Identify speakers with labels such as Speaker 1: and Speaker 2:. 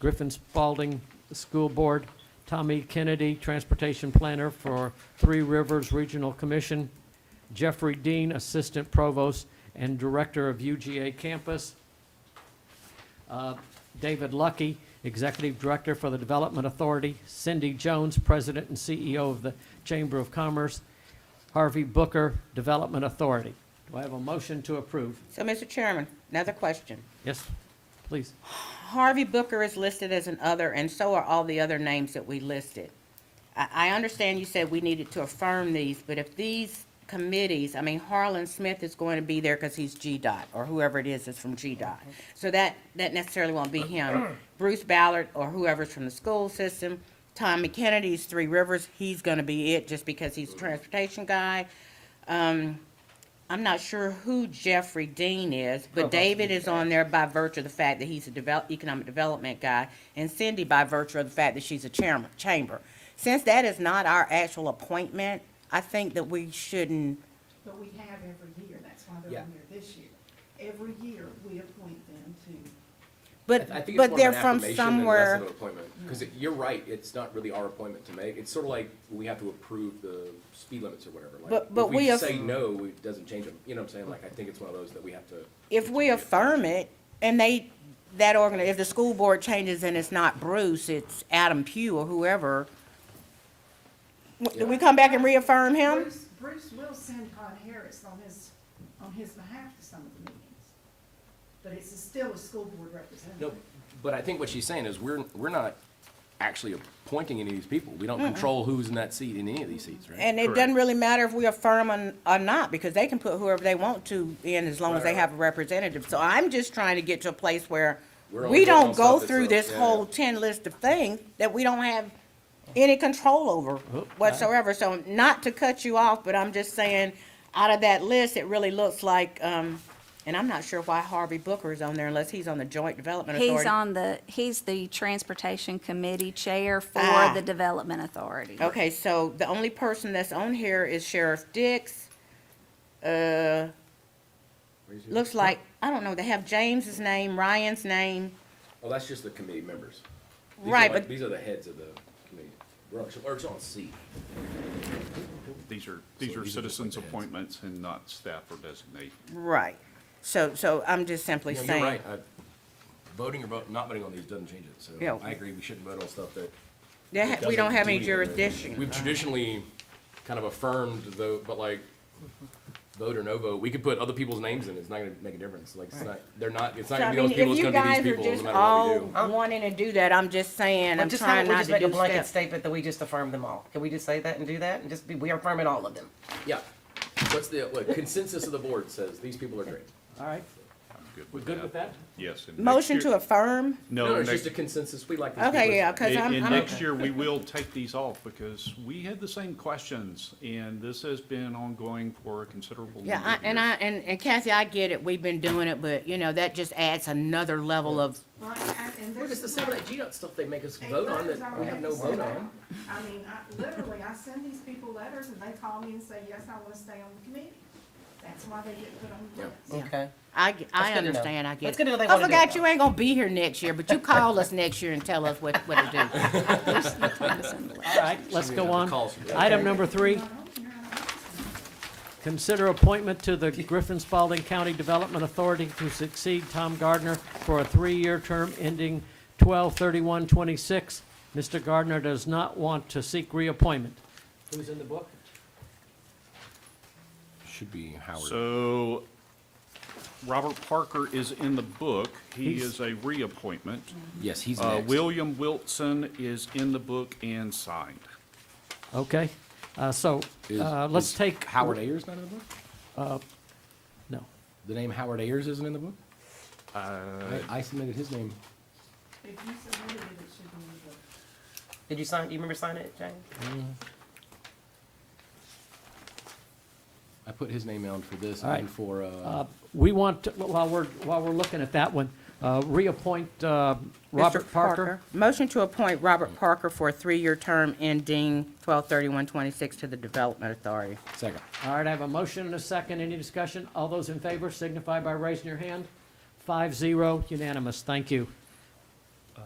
Speaker 1: Griffin Spalding School Board, Tommy Kennedy, Transportation Planner for Three Rivers Regional Commission, Jeffrey Dean, Assistant Provost and Director of UGA Campus, uh, David Lucky, Executive Director for the Development Authority, Cindy Jones, President and CEO of the Chamber of Commerce, Harvey Booker, Development Authority. Do I have a motion to approve?
Speaker 2: So, Mr. Chairman, another question.
Speaker 1: Yes, please.
Speaker 2: Harvey Booker is listed as an other, and so are all the other names that we listed. I, I understand you said we needed to affirm these, but if these committees, I mean, Harlan Smith is going to be there because he's GDOT, or whoever it is that's from GDOT. So that, that necessarily won't be him. Bruce Ballard, or whoever's from the school system, Tom McKennedy's Three Rivers, he's going to be it just because he's a transportation guy. Um, I'm not sure who Jeffrey Dean is, but David is on there by virtue of the fact that he's a develop, economic development guy, and Cindy by virtue of the fact that she's a chairman, chamber. Since that is not our actual appointment, I think that we shouldn't,
Speaker 3: But we have every year, that's why
Speaker 4: Yeah.
Speaker 3: they're on there this year. Every year, we appoint them to,
Speaker 2: but,
Speaker 4: I think
Speaker 2: but
Speaker 4: it's more of an
Speaker 2: they're from
Speaker 4: affirmation than less
Speaker 2: somewhere.
Speaker 4: of an appointment. Because you're right, it's not really our appointment to make. It's sort of like we have to approve the speed limits or whatever. Like,
Speaker 2: But- but
Speaker 4: if
Speaker 2: we
Speaker 4: we
Speaker 2: aff-
Speaker 4: say no, it doesn't change them. You know what I'm saying? Like, I think it's one of those that we have to.
Speaker 2: If we affirm it, and they, that organ, if the school board changes and it's not Bruce, it's Adam Pugh or whoever, w- do we come back and reaffirm him?
Speaker 3: Bruce, Bruce will send Con Harris on his, on his behalf to some of the meetings. But it's still a school board
Speaker 4: No,
Speaker 3: representative.
Speaker 4: but I think what she's saying is we're, we're not actually appointing any of these people. We don't control who's in that seat in any of these seats, right?
Speaker 2: And it doesn't really matter if we affirm or- or not, because they can put whoever they want to in as long as they have a representative. So I'm just trying to get to a place where
Speaker 4: We're
Speaker 2: we
Speaker 4: only voting
Speaker 2: don't
Speaker 4: on
Speaker 2: go
Speaker 4: stuff that's
Speaker 2: through
Speaker 4: up,
Speaker 2: this
Speaker 4: yeah,
Speaker 2: whole
Speaker 4: yeah.
Speaker 2: ten list of things that we don't have any control over
Speaker 4: Oh,
Speaker 2: whatsoever. So not to cut you off, but I'm just saying, out of that list, it really looks like, um, and I'm not sure why Harvey Booker is on there unless he's on the Joint Development Authority.
Speaker 5: He's on the, he's the Transportation Committee Chair
Speaker 2: Ah.
Speaker 5: for the Development Authority.
Speaker 2: Okay, so the only person that's on here is Sheriff Dix. Uh, looks like, I don't know, they have James's name, Ryan's name.
Speaker 4: Well, that's just the committee members. These are
Speaker 2: Right,
Speaker 4: like-
Speaker 2: but-
Speaker 4: These are the heads of the committee. We're on, or it's on C.
Speaker 6: These are,
Speaker 4: So
Speaker 6: these are
Speaker 4: these are just
Speaker 6: citizens'
Speaker 4: like the heads.
Speaker 6: appointments and not staff or designate.
Speaker 2: Right. So, so I'm just simply
Speaker 4: No, You're
Speaker 2: saying.
Speaker 4: right. I- Voting or vote, not voting on these doesn't change it, so
Speaker 2: Yeah.
Speaker 4: I agree, we shouldn't vote on stuff that.
Speaker 2: they ha- We
Speaker 4: doesn't
Speaker 2: don't have
Speaker 4: do
Speaker 2: any
Speaker 4: anything.
Speaker 2: jurisdiction.
Speaker 4: We've traditionally kind of affirmed though, but like, vote or no vote, we could put other people's names in, it's not gonna make a difference, like, it's not, they're not, it's
Speaker 2: So
Speaker 4: not
Speaker 2: I
Speaker 4: gonna be
Speaker 2: mean,
Speaker 4: those
Speaker 2: if
Speaker 4: people, it's
Speaker 2: you
Speaker 4: gonna
Speaker 2: guys
Speaker 4: be
Speaker 2: are
Speaker 4: these people, no
Speaker 2: just
Speaker 4: matter
Speaker 2: all
Speaker 4: what we do.
Speaker 2: wanting to do that, I'm just saying,
Speaker 7: Well,
Speaker 2: I'm
Speaker 7: just how,
Speaker 2: trying
Speaker 7: we
Speaker 2: not
Speaker 7: just
Speaker 2: to
Speaker 7: make a
Speaker 2: do
Speaker 7: blanket
Speaker 2: stuff.
Speaker 7: statement that we just affirm them all. Can we just say that and do that and just be, we are affirming all of them?
Speaker 4: Yeah, what's the, what consensus of the board says, these people are great.
Speaker 1: All right,
Speaker 6: I'm
Speaker 1: we're good with that?
Speaker 6: Yes. and next
Speaker 2: Motion
Speaker 6: year-
Speaker 2: to affirm?
Speaker 4: No,
Speaker 6: No,
Speaker 4: it's just
Speaker 6: next,
Speaker 4: a consensus, we like these people.
Speaker 2: Okay, yeah, because
Speaker 6: and
Speaker 2: I'm,
Speaker 6: and
Speaker 2: I'm,
Speaker 6: next year, we will take these off because we had the same questions and this has been ongoing for a considerable number
Speaker 2: yeah, I-
Speaker 6: of
Speaker 2: and I,
Speaker 6: years.
Speaker 2: and and Kathy, I get it. We've been doing it, but you know, that just adds another level of
Speaker 3: Well, and- and
Speaker 4: We're
Speaker 3: there's
Speaker 4: just the same, like, GDOT stuff they make us
Speaker 3: They
Speaker 4: vote on
Speaker 3: letters
Speaker 4: that we
Speaker 3: already
Speaker 4: have no
Speaker 3: sent
Speaker 4: vote
Speaker 3: out.
Speaker 4: on.
Speaker 3: I mean, I, literally, I send these people letters and they call me and say, yes, I wanna stay on the committee. That's why they get put on the
Speaker 4: Yeah.
Speaker 3: list.
Speaker 7: Okay.
Speaker 2: I, g- I
Speaker 7: good to know.
Speaker 2: understand, I
Speaker 7: That's
Speaker 2: get
Speaker 7: good to know
Speaker 2: it.
Speaker 7: they
Speaker 2: I
Speaker 7: wanna do it
Speaker 2: forgot
Speaker 7: now.
Speaker 2: you ain't gonna be here next year, but you call us next year and tell us what, what to do.
Speaker 1: All right, let's go on.
Speaker 4: Calls for that.
Speaker 1: Item number three,
Speaker 3: Not on here, I don't know.
Speaker 1: consider appointment to the Griffin Spalding County Development Authority to succeed Tom Gardner for a three-year term ending 12/31/26. Mr. Gardner does not want to seek reappointment. Who's in the book?
Speaker 4: Should be Howard.
Speaker 6: So Robert Parker is in the book. He
Speaker 1: He's-
Speaker 6: is a reappointment.
Speaker 4: Yes, he's
Speaker 6: Uh,
Speaker 4: next.
Speaker 6: William Wilson is in the book and signed.
Speaker 1: Okay, uh, so,
Speaker 4: Is-
Speaker 1: uh, let's
Speaker 4: is
Speaker 1: take.
Speaker 4: Howard Ayers not in the book?
Speaker 1: No.
Speaker 4: The name Howard Ayers isn't in the book?
Speaker 6: Uh,
Speaker 4: I I submitted his name.
Speaker 3: If you submitted it, it should be in the book.
Speaker 7: Did you sign, you remember signing it, Jane?
Speaker 4: I put his name on for this
Speaker 1: All right.
Speaker 4: and for, uh,
Speaker 1: We want, to- while we're, while we're looking at that one, uh, reappoint uh, Robert
Speaker 2: Mr.
Speaker 1: Parker.
Speaker 2: Motion to appoint Robert Parker for a three-year term ending twelve thirty-one twenty-six to the Development Authority.
Speaker 4: second.
Speaker 1: All right, I have a motion and a second. Any discussion? All those in favor signify by raising your hand. Five zero, unanimous. Thank you.